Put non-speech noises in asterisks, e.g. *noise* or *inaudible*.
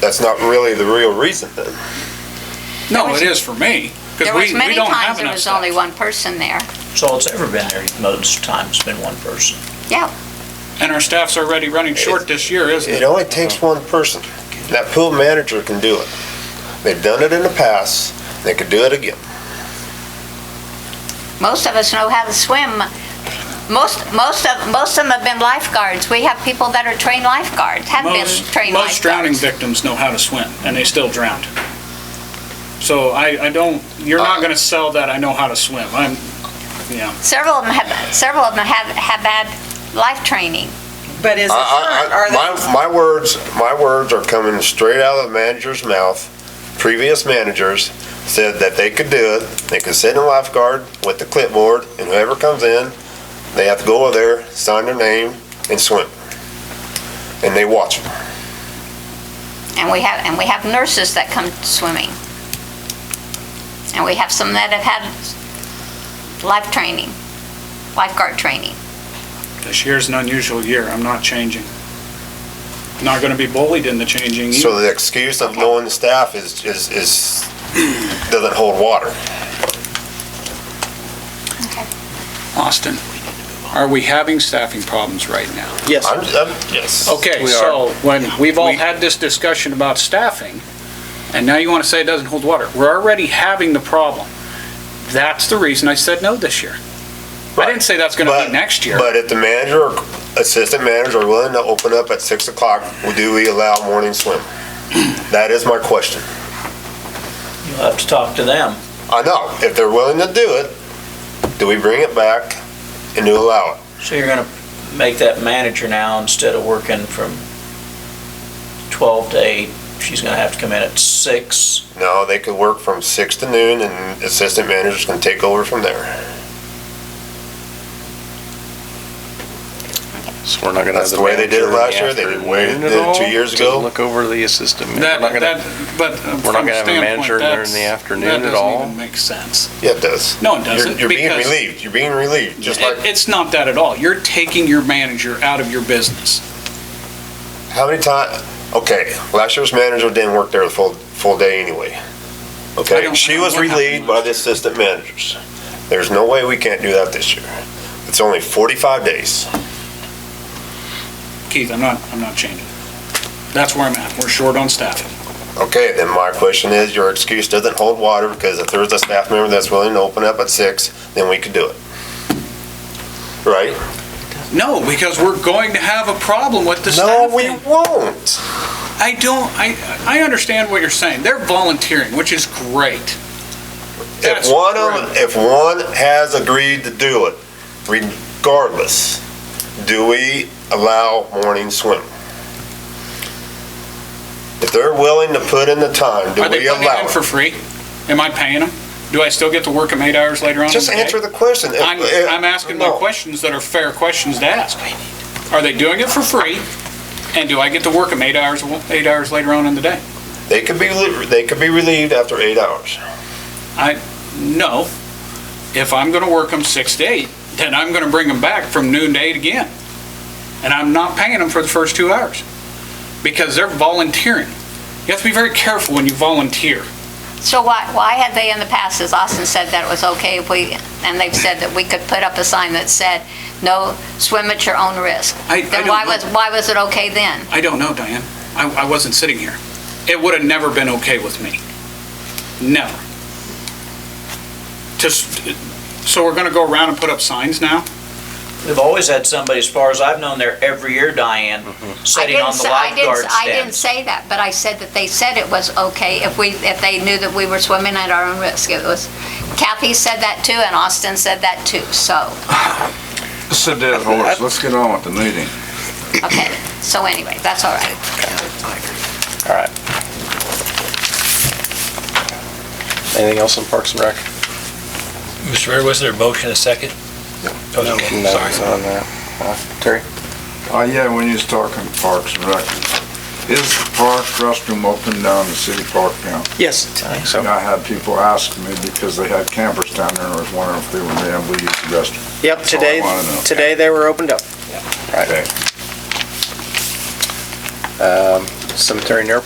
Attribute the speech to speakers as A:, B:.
A: that's not really the real reason then.
B: No,
C: There was-
B: it is for me, because
C: There
B: we,
C: was
B: we
C: many
B: don't have
C: times there
B: enough
C: was only
B: staff.
C: one person there.
D: So it's ever been there, most times it's been one person.
C: Yeah,
B: And our staff's already running short this year, isn't
A: It
B: it?
A: only takes one person. That pool manager can do it. They've done it in the past, they could do it again.
C: most of us know how to swim. Most, most of, most of them have been lifeguards. We have people that are trained lifeguards, have been
B: Most,
C: trained
B: most drowning
C: lifeguards.
B: victims know how to swim, and they still drowned. So I, I don't, you're not gonna sell that I know how to swim. I'm, yeah,
C: Several of them have, several of them have, have had life training.
E: But is it
A: I-
E: current,
A: I- I-
E: are
A: My,
E: they,
A: my words, my words are coming straight out of the manager's mouth. Previous managers said that they could do it, they could sit in a lifeguard with the clipboard, and whoever comes in, they have to go over there, sign their name, and swim. And they watch them.
C: And we have, and we have nurses that come swimming. And we have some that have had life training, lifeguard training.
B: this year's an unusual year, I'm not changing. Not gonna be bullied into changing either.
A: So the excuse of knowing the staff is, is, is, doesn't hold water.
B: Austin, are we having staffing problems right now?
F: Yes,
A: I'm, I'm, yes.
B: Okay,
F: We
B: so when, we've all
F: We-
B: had this discussion about staffing, and now you want to say it doesn't hold water. We're already having the problem. That's the reason I said no this year. I didn't say that's going to
A: But-
B: be next year.
A: But if the manager or assistant manager are willing to open up at six o'clock, do we allow morning
B: *clears throat*
A: swim? That is my question.
D: You'll have to talk to them.
A: I know, if they're willing to do it, do we bring it back and do allow it?
D: So you're gonna make that manager now, instead of working from twelve to eight, she's gonna have to come in at six.
A: No, they could work from six to noon and assistant managers can take over from there.
F: so we're not gonna.
A: That's
F: have
A: the way they did it
F: manager in
A: last year.
F: the
A: They did
F: afternoon
A: way- did it two
F: to
A: years ago.
F: Look over the assistant. man-
B: That,
F: We're not gonna-
B: that, but uh,
F: we're not
B: from
F: gonna
B: a
F: have a manager
B: standpoint,
F: in there in
B: that's,
F: the afternoon
B: that
F: at all?
B: doesn't even make sense.
A: Yeah, it does.
B: No, it
A: You're-
B: doesn't,
A: You're being
B: because-
A: relieved, you're being relieved, just
B: It-
A: like,
B: It's not that at all. You're taking your manager out of your business.
A: how many times? okay, last year's manager didn't work there the full, full day anyway.
B: I
A: Okay,
B: don't- I
A: she
B: don't
A: was
B: know what
A: relieved
B: happened
A: by
B: last
A: the assistant managers. There's no way we can't do that this year. It's only forty-five days.
B: Keith, I'm not, I'm not changing. That's where I'm at. We're short on staffing.
A: Okay, then my question is, your excuse doesn't hold water because if there's a staff member that's willing to open up at six, then we could do it. Right?
B: No, because we're going to have a problem with the
A: No,
B: staffing.
A: we won't.
B: I don't, I, I understand what you're saying. They're volunteering, which is great. That's
A: If one of,
B: great.
A: if one has agreed to do it, regardless, do we allow morning swim? If they're willing to put in the time, do
B: Are they
A: we
B: putting it
A: allow
B: in for
A: it?
B: free? Am I paying them? Do I still get to work them eight hours later on? in
A: Just
B: the day?
A: answer the question. If-
B: I'm,
A: if-
B: I'm asking my
A: no.
B: questions that are fair questions to ask. Are they doing it for free? And do I get to work them eight hours, eight hours later on in the day?
A: They could be, li- they could be relieved after eight hours.
B: No. If I'm gonna work them six to eight, then I'm gonna bring them back from noon to eight again. And I'm not paying them for the first two hours. Because they're volunteering. You have to be very careful when you volunteer.
C: So why, why had they in the past, as Austin said, that it was okay if we, and they've said that we could put up a sign that said, no, swim at your own risk?
B: I, I
C: Then
B: don't
C: why was,
B: know.
C: why was it okay then?
B: I don't know, Diane. I, I wasn't sitting here. It would have never been okay with me. Never. Just, so we're gonna go around and put up signs now?
D: We've always had somebody, as far as I've known, there every year, Diane,
C: I
D: sitting
C: didn't.
D: on the
C: say- I didn't-
D: lifeguard
C: I didn't
D: stand.
C: say that, but I said that they said it was okay if we, if they knew that we were swimming at our own risk. It was, Kathy said that too, and Austin said that too, so,
G: It's a dead horse. Let's get on with the meeting.
C: okay. So anyway, that's all right.
F: All right. Anything else on Parks and Rec?
H: Mr. Mayor, was there a motion, a second? Okay,
F: No,
H: sorry.
F: it's on there. Uh, Terry?
G: Oh, yeah, when you was talking Parks and Rec, is the park restroom open down the city park now?
F: Yes. I think so.
G: And I had people asking me because they had campers down there and I was wondering if they were being able to use the restroom.
I: Yep,
G: That's all I
I: today,
G: wanna know.
I: today they were opened up.
F: Right.
G: Okay.
F: Um, Cemetery and airport